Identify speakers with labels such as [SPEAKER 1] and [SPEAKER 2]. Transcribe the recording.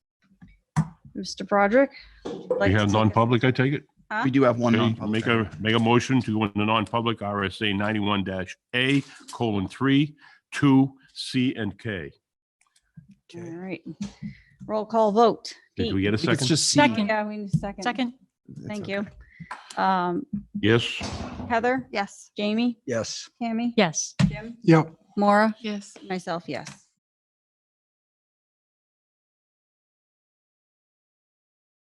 [SPEAKER 1] Mr. Broderick? would like
[SPEAKER 2] We
[SPEAKER 1] to
[SPEAKER 2] have
[SPEAKER 1] take a-
[SPEAKER 2] non-public, I take it?
[SPEAKER 1] Huh?
[SPEAKER 3] We do have one
[SPEAKER 2] Okay,
[SPEAKER 3] non-public.
[SPEAKER 2] Make a, make a motion to go into non-public RSA ninety-one dash A colon three, two, C and K.
[SPEAKER 1] All
[SPEAKER 3] Okay.
[SPEAKER 1] right. Roll call vote.
[SPEAKER 2] Did we get a
[SPEAKER 3] I think It's
[SPEAKER 2] second?
[SPEAKER 3] just C.
[SPEAKER 4] Second.
[SPEAKER 1] Yeah, we need a second.
[SPEAKER 4] Second?
[SPEAKER 3] It's
[SPEAKER 1] Thank
[SPEAKER 3] okay.
[SPEAKER 1] you. Um,
[SPEAKER 2] Yes.
[SPEAKER 1] Heather,
[SPEAKER 4] Yes.
[SPEAKER 1] Jamie,
[SPEAKER 3] Yes.
[SPEAKER 1] Tammy,
[SPEAKER 4] Yes.
[SPEAKER 1] Jim,
[SPEAKER 5] Yep.
[SPEAKER 1] Maura,
[SPEAKER 4] Yes.
[SPEAKER 1] myself, yes.